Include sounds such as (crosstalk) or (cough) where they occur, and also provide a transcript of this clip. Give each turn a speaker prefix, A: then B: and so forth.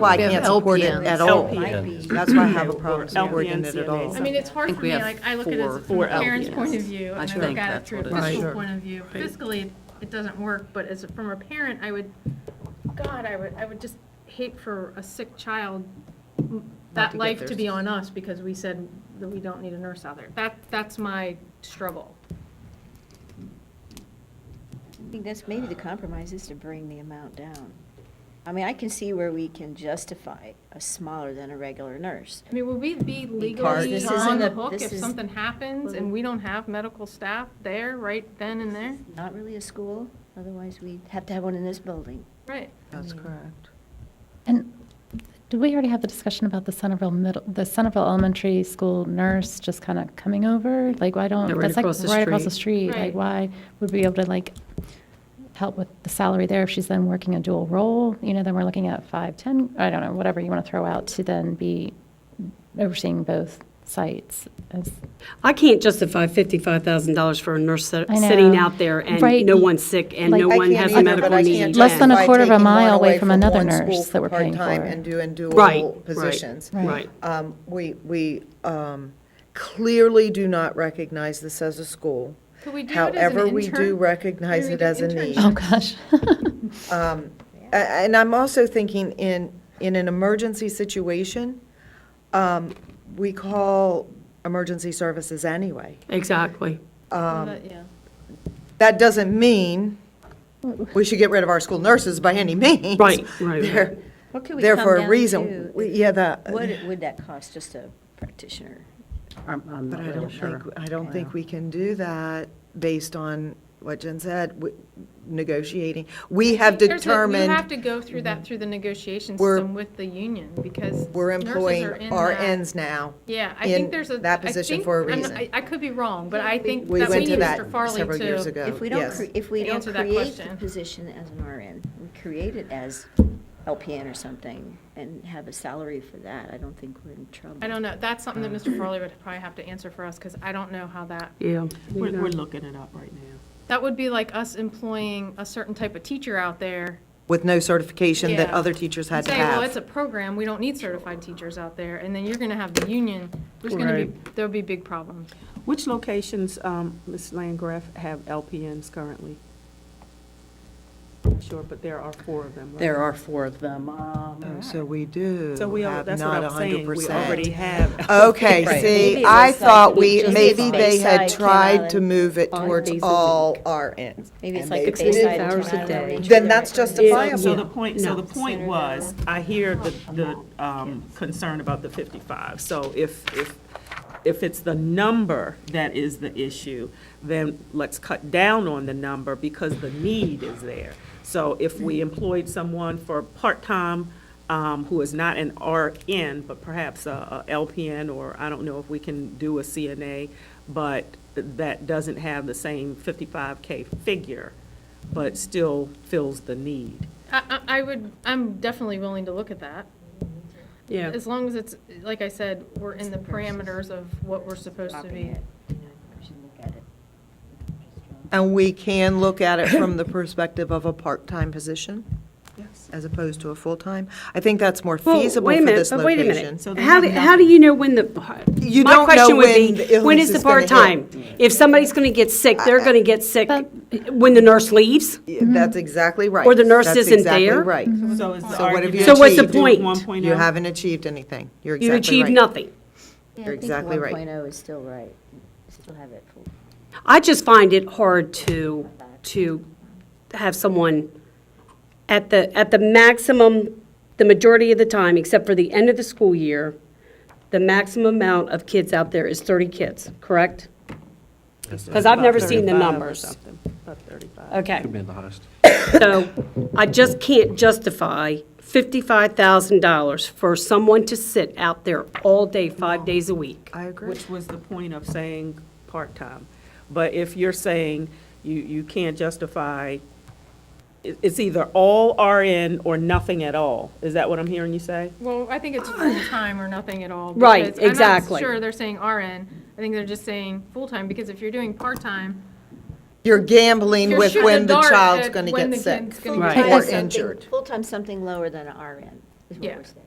A: That's why I
B: We have
A: can't support it
B: LPNs.
A: at all.
B: LPNs.
A: That's why I have a problem supporting
C: LPNs,
A: it at
C: CNAs.
A: all.
D: I mean, it's hard
B: think
D: for
B: we
D: me,
B: have
D: like, I look at
B: four-
D: it from
B: four
D: a parent's
B: LPNs.
D: point of view,
B: I
D: and I
B: think
D: look at it
B: that's
D: through a
B: what it is.
D: fiscal
A: Right.
D: point of view. Fiscally, it doesn't work, but as, a- from a parent, I would, God, I would, I would just hate for a sick child, that
B: to get
D: life to
B: theirs.
D: be on us, because we said that we don't need a nurse out there. That, that's my struggle.
E: I think that's maybe the compromise is to bring the amount down. I mean, I can see where we can justify a smaller than a regular nurse.
D: I mean, would we be
E: Because
D: legally
E: this
D: on
E: isn't a-
D: the hook
E: this
D: if
E: is-
D: something happens and we don't have medical staff there, right then and there?
E: Not really a school, otherwise we'd have to have one in this building.
D: Right.
A: That's correct.
F: And did we already have the discussion about the Centerville Middle, the Centerville Elementary School nurse just kind of coming over? Like, why
B: Yeah,
F: don't,
B: right
F: that's like
B: across the
F: right across the
D: street.
F: street. Like,
D: Right.
F: why would we be able to like help with the salary there if she's then working a dual role? You know, then we're looking at five, 10, I don't know, whatever you want to throw out to then be overseeing both sites as.
C: I can't justify fifty-five thousand dollars for a nurse sit-
F: I
C: sitting
F: know.
C: out there and
F: Right.
C: no one's sick and
F: Like-
C: no
F: I
C: one
F: can't
C: has a
F: either,
C: medical
F: but I
C: need.
F: can't Less than a
C: Yeah.
A: By
F: quarter of a
A: taking one
F: mile away
A: away
F: from another
A: one school
F: nurse that we're paying
A: part-time
F: for.
A: And do, and
C: Right,
A: dual
C: right.
A: positions.
F: Right.
C: Right.
A: Um, We, we um, clearly do not recognize this as a school.
D: Could we do it as an
A: However, we do
D: intern-
A: recognize
D: could we
A: it
D: do
A: as a
D: internship?
A: need.
F: Oh, gosh.
A: Um, a- And I'm also thinking in, in an emergency situation, um, we call emergency services anyway.
C: Exactly.
A: Um,
D: Well, that- Yeah.
A: That doesn't mean we should get rid of our school nurses by any means.
C: Right, right,
A: They're-
C: right.
E: What could we
A: There
E: come
A: for a
E: down
A: reason.
E: to?
A: We- yeah, that-
E: What would that cost, just a practitioner?
B: I'm, I'm
A: But
B: not
A: I don't
B: really
A: think,
B: sure.
A: I don't think we can do that based on what Jen said, w- negotiating. We have
D: There's a- You have
A: determined
D: to go through that through the negotiation
A: We're-
D: system with the union, because
A: we're
D: nurses
A: employing
D: are in that.
A: RNs now.
D: Yeah, I
A: in
D: think there's a.
A: that
D: I
A: position
D: think-
A: for a
D: I'm not-
A: reason.
D: I I could be wrong, but I think
A: We
D: that we
A: went to
D: need
A: that
D: Mr. Farley
A: several years
D: to.
A: ago.
E: If we don't,
A: yes.
E: cre- if we don't
D: Answer that
E: create the
D: question.
E: position as an RN, we create it as LPN or something and have a salary for that, I don't think we're in trouble.
D: I don't know, that's something that
A: Uh-huh.
D: Mr. Farley would probably have to answer for us, because I don't know how that,
C: Yeah.
B: We're, we're looking it up right now.
D: that would be like us employing a certain type of teacher out there.
A: With no certification that
D: Yeah.
A: other teachers had
D: and
A: to
D: Say, well, it's a
A: have.
D: program, we don't need certified teachers out there, and then you're gonna have the union, there's gonna be, there'll be big problems.
G: Which locations, um, Ms. Landgraf, have LPNs currently? I'm Sure, but there are four of them, right?
B: There are four of them. Um,
A: Oh, So we do
G: So we, al-
A: have
G: that's
A: not
G: what I'm saying, we already
A: 100%.
G: have.
A: Okay,
B: Right.
A: see,
E: Maybe it
A: I
E: was like
A: thought
E: we
A: we,
E: just
A: maybe they had
E: Bayside, Ken
A: tried
E: Island,
A: to move it
B: five
A: towards
B: days a
A: all RNs.
E: Maybe it's
A: and
E: like
A: they
E: the
A: didn't.
E: Bayside.
B: hours a
E: Town
B: day.
E: Elementary
A: Then that's
E: that-
A: justifiable.
G: So the point, so the point
E: Center
G: was, I hear the, the um, concern about the 55. So if, if, if it's the number that is the issue, then let's cut down on the number because the need is there. So if we employed someone for part-time, um, who is not an RN, but perhaps a a LPN, or I don't know if we can do a CNA, but that doesn't have the same 55K figure, but still fills the need.
D: I, I I would, I'm definitely willing to look at that.
C: Yeah.
D: As long as it's, like I said, we're in the parameters of what we're supposed to
E: Dropping
D: be.
E: it, you know, we should look at it.
A: And we can look at it from the perspective of a part-time position? Yes. As opposed to a full-time? I think that's more
C: Well,
A: feasible
C: wait a
A: for
C: minute,
A: this
C: but wait a
A: location.
C: minute.
G: So they
C: How, do-
G: have
C: how do you know when the,
A: You
C: my
A: don't know
C: question would
A: when the
C: be, when
A: illness
C: is the
A: is gonna hit.
C: part-time? If somebody's going to get sick, they're going to get sick when the nurse leaves?
A: Yeah, That's exactly right.
C: Mm-hmm. Or the nurse
A: That's
C: isn't
A: exactly
C: there? Mm-hmm.
A: right.
G: So is the
A: So what have you
G: argument.
A: So what's the
C: achieved? point?
G: oh
A: You haven't achieved anything. You're
C: You
A: exactly right.
C: achieve nothing.
A: You're
E: Yeah, I think
A: exactly right.
E: 1.0 is still right, still have it full.
C: I just find it hard to, to have someone at the, at the maximum, the majority of the time, except for the end of the school year, the maximum amount of kids out there is 30 kids, correct? Because I've never seen the numbers.
G: About 35.
C: Okay.
H: Could be the highest.
C: So I just can't justify $55,000 for someone to sit out there all day, five days a week.
A: I agree.
G: Which was the point of saying part-time. But if you're saying you, you can't justify, it- it's either all RN or nothing at all, is that what I'm hearing you say?
D: Well, I think
C: (coughs)
D: it's full-time or nothing at all.
C: Right,
D: because
C: exactly.
D: I'm not sure they're saying RN. I think they're just saying full-time, because if you're doing part-time,
A: You're gambling
D: you're
A: with
D: shooting
A: when
D: a
A: the
D: dart
A: child's
D: at
A: going to
D: when
A: get
D: the kid's
A: sick
D: gonna
C: Right.
D: get
A: or
E: Something-
A: injured.
E: Full-time, something lower than an RN. is what
D: Yeah.
E: we're saying.